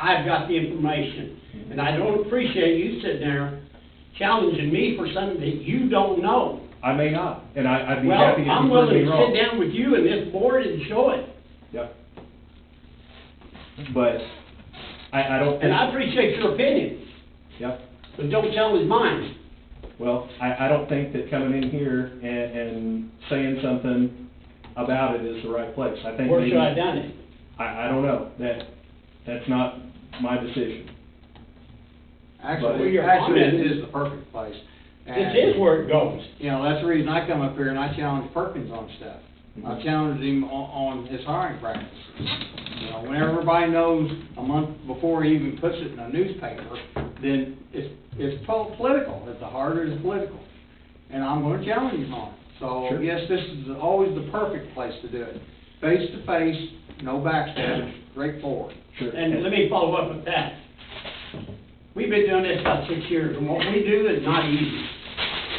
I've got the information. And I don't appreciate you sitting there challenging me for something that you don't know. I may not, and I, I'd be Well, happy if I'm you proved me willing to wrong. sit down with you and this board and show it. Yep. But, I, I don't And I think, appreciate your opinion, yep, but don't tell his mine. well, I, I don't think that coming in here and, and saying something about it is the right place. I think Where maybe, should I have I, done it? I don't know, that, that's not my decision. But- Well, Actually, your actually, comment- it is the perfect place. This And, is where it goes. You know, that's the reason I come up here and I challenge Perkins on stuff. I Mhm. challenged him on, on his hiring practices. You know, when everybody knows a month before he even puts it in a newspaper, then it's, it's po- political, it's the harder it's political. And I'm gonna challenge him on it. So, Sure. yes, this is always the perfect place to do it. Face to face, no backstab, straightforward. Sure. And let me follow up with that. We've been doing this about six years, and what we do is not easy.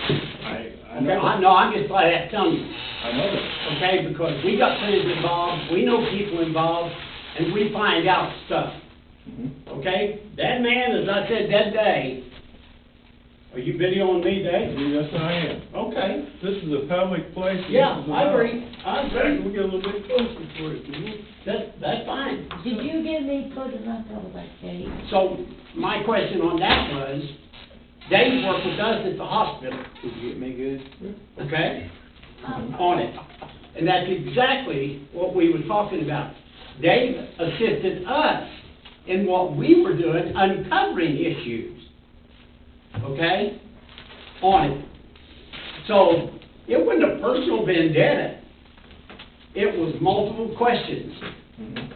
I, I Okay, know, I I know, I'm just glad that telling you. know that. okay, because we got things involved, we know people involved, and we find out stuff, Mhm. okay? That man, as I said that day, are you videoing me, Dave? Yes, I am. Okay, This is a public place. and yeah, this is I allowed. agree, I Hey, we agree, get a little bit closer for it, can we? that, that's fine. Did you give me photos on top of that cake? So, my question on that was, Dave worked with us at the hospital, Did you get me good? okay? Um, on it. And that's exactly what we were talking about. They assisted us in what we were doing, uncovering issues, okay, on it. So it wasn't a personal vendetta. It was multiple questions Mhm.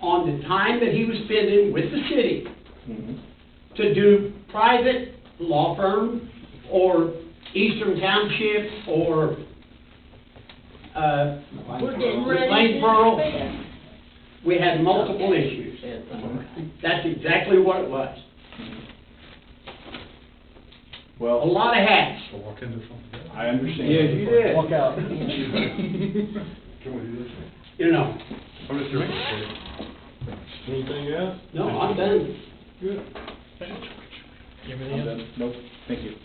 on the time that he was spending with the city Mhm. to do private law firm or Eastern Township or, uh, We're getting With ready to. Lane Borough. expand. we had multiple issues. That's exactly what it was. A Well, lot of hats. I'll walk in there from there. I understand. Yeah, you did. Walk out. Can we do this? you know. I'm just doing it. Anything else? No, I'm done. Good. I'm done. Nope, thank you.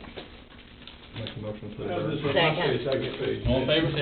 Make a motion to adjourn. Second. Second page. All in favor, say